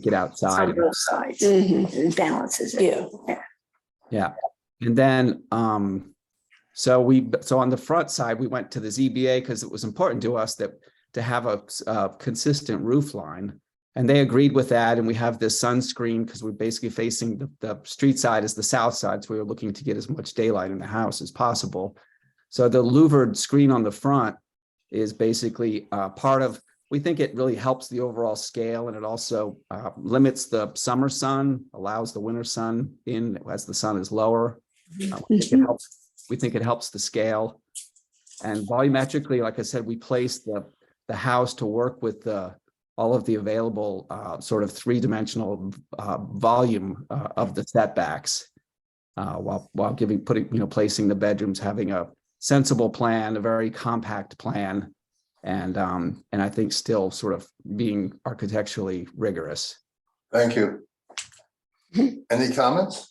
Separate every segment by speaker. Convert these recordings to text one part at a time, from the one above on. Speaker 1: get outside.
Speaker 2: on both sides
Speaker 3: Mhm.
Speaker 2: and balances it.
Speaker 3: Yeah.
Speaker 1: And then, um, so we, so on the front side, we went to the ZBA because it was important to us that, to have a, s- uh consistent roof line. And they agreed with that, and we have this sunscreen because we're basically facing the, the street side is the south side, so we were looking to get as much daylight in the house as possible. So the louvered screen on the front is basically, uh, part of, we think it really helps the overall scale and it also, uh, limits the summer sun, allows the winter sun in as the sun is lower. Uh, we think it helps- We think it helps the scale. And volumetrically, like I said, we placed the, the house to work with the, all of the available uh, sort of three-dimensional uh, volume uh, of the setbacks. Uh, while, while giving, putting, you know, placing the bedrooms, having a sensible plan, a very compact plan. And, um, and I think still sort of being architecturally rigorous.
Speaker 4: Thank you. Any comments?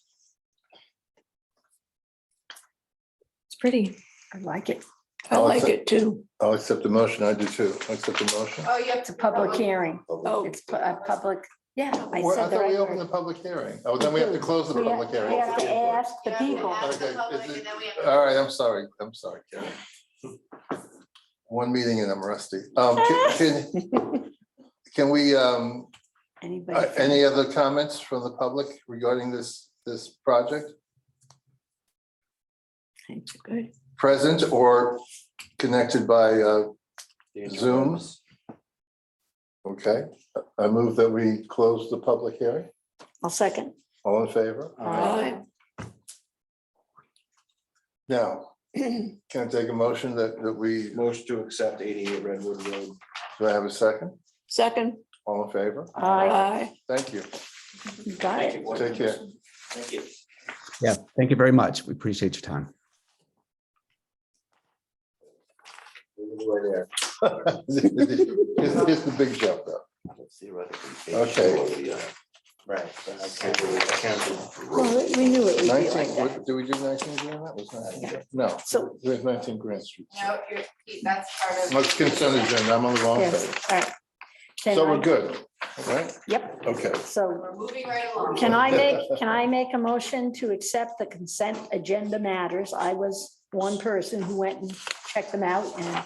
Speaker 5: It's pretty.
Speaker 2: I like it.
Speaker 3: I like it too.
Speaker 4: I'll accept the motion. I do too. I'll accept the motion.
Speaker 2: Oh, you have to. Public hearing.
Speaker 3: Oh.
Speaker 2: It's pu- a public, yeah. I
Speaker 4: Well, I
Speaker 2: said the
Speaker 4: thought we
Speaker 2: right
Speaker 4: opened
Speaker 2: word.
Speaker 4: the public hearing. Oh, then we have to close the
Speaker 2: We have-
Speaker 4: public hearing.
Speaker 2: We have to ask the
Speaker 5: Yeah, we
Speaker 2: people.
Speaker 5: have-
Speaker 4: Okay,
Speaker 5: Public,
Speaker 4: is it- uh,
Speaker 5: and then we have-
Speaker 4: All right, I'm sorry. I'm sorry, Karen. One meeting and I'm rusty. Um, can- can, can we, um,
Speaker 2: Anybody?
Speaker 4: uh, any other comments from the public regarding this, this project?
Speaker 2: It's Good.
Speaker 4: Present or connected by, uh, Zoom? Okay, I move that we close the public hearing.
Speaker 2: I'll second.
Speaker 4: All in favor? Now, can I take a motion that, that we,
Speaker 6: Motion to accept eighty-eight Redwood Road.
Speaker 4: do I have a second?
Speaker 3: Second,
Speaker 4: All in favor?
Speaker 2: I
Speaker 3: aye.
Speaker 4: Thank you.
Speaker 2: got it.
Speaker 4: Take care.
Speaker 6: Thank you.
Speaker 1: Yeah, thank you very much. We appreciate your time.
Speaker 6: Right
Speaker 4: It's just a big jump though.
Speaker 6: there.
Speaker 4: Okay.
Speaker 6: Right. but I can't really- I can't really-
Speaker 2: Well, we knew it would be like
Speaker 4: Nineteen,
Speaker 2: that.
Speaker 4: what- did we do nineteen grand? That was nineteen. No,
Speaker 2: So,
Speaker 4: there's nineteen Grand Street.
Speaker 5: No, you're, that's part of.
Speaker 4: Let's consent agenda. I'm on the wrong
Speaker 2: yes,
Speaker 4: page.
Speaker 2: all right. Can
Speaker 4: So
Speaker 2: I-
Speaker 4: we're good, right?
Speaker 2: Yep,
Speaker 4: Okay.
Speaker 2: so
Speaker 5: We're moving right along.
Speaker 2: can I make, can I make a motion to accept the consent agenda matters? I was one person who went and checked them out and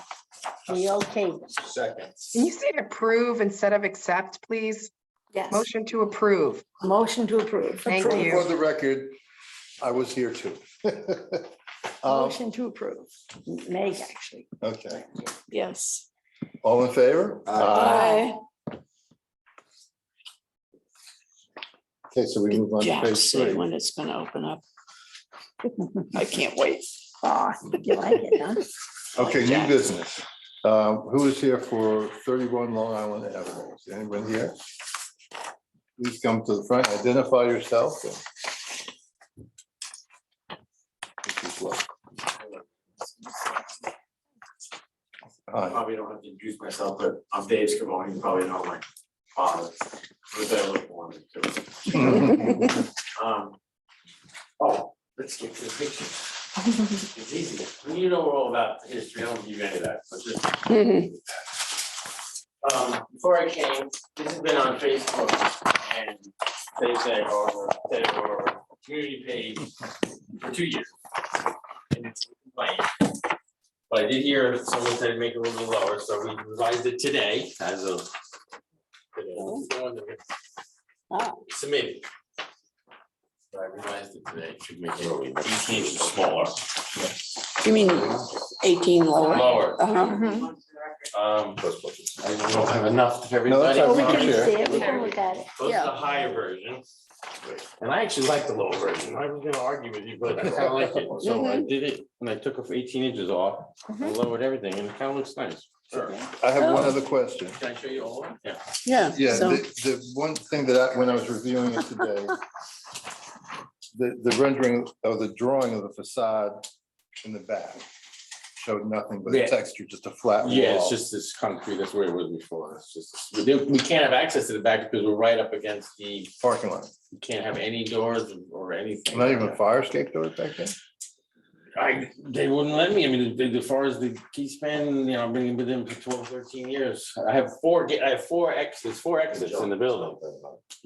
Speaker 2: we okayed. them.
Speaker 6: Second.
Speaker 7: Can you say approve instead of accept, please?
Speaker 2: Yes,
Speaker 7: Motion to approve.
Speaker 2: motion to approve.
Speaker 7: Thank
Speaker 2: Approve.
Speaker 7: you.
Speaker 4: For the record, I was here too. Um,
Speaker 2: Motion to approve. Meg, actually.
Speaker 4: Okay,
Speaker 3: Yes.
Speaker 4: all in favor?
Speaker 3: Aye.
Speaker 4: Okay, so we move on to
Speaker 3: Jack,
Speaker 4: page
Speaker 3: see
Speaker 4: three.
Speaker 3: when it's gonna open up. I can't wait.
Speaker 2: Ah, you like it, huh?
Speaker 4: Okay, new
Speaker 3: Jack.
Speaker 4: business. Um, Who is here for thirty-one Long Island Avenue? Is Anyone here? Please come to the front, identify yourself. and- Hi,
Speaker 8: probably don't have to introduce myself, but I'm Dave Scavone, you probably know my father. He was there with one and two. Um, Oh, let's get to the picture. It's easy. When you know all about the history, I don't give you any of that, but just
Speaker 3: Mhm.
Speaker 8: um, before I came, this has been on Facebook and they say, or they were community page for two years. And it's like, But I did hear someone said make it a little bit lower, so we revised it today as of. today. It's the one that we
Speaker 2: Oh.
Speaker 8: Submitted. So I revised it today, should make it eighteen inches smaller,
Speaker 3: You mean eighteen lower?
Speaker 8: lower.
Speaker 3: Uh-huh.
Speaker 7: Mhm.
Speaker 8: Um, I don't have enough for
Speaker 4: No, that's
Speaker 8: everybody.
Speaker 4: all
Speaker 2: Well,
Speaker 4: right.
Speaker 2: we can
Speaker 4: Sure.
Speaker 2: see it, we can look at it.
Speaker 8: Those
Speaker 3: Yeah.
Speaker 8: are the higher versions. And I actually like the lower version. I was gonna argue with you, but I kinda like it. So I did it and I took off eighteen inches off. I lowered everything and it kinda looks nice. Sure.
Speaker 4: I have
Speaker 3: Oh.
Speaker 4: one other question.
Speaker 8: Can I show you all? of them? Yeah.
Speaker 3: Yeah.
Speaker 4: Yeah,
Speaker 3: so-
Speaker 4: the, the one thing that I, when I was reviewing it today, the, the rendering of the drawing of the facade in the back showed nothing but
Speaker 8: Yeah.
Speaker 4: texture, just a flat wall.
Speaker 8: Yeah, it's just this concrete. That's where it was before. It's just, we didn't- we can't have access to the back because we're right up against the,
Speaker 4: Parking lot,
Speaker 8: we can't have any doors or anything.
Speaker 4: not even a fire escape door back there?
Speaker 8: I, they wouldn't let me, I mean, as- as far as the key span, you know, I've been with them for 12, 13 years. I have four, ga- I have four exits, four exits in the building.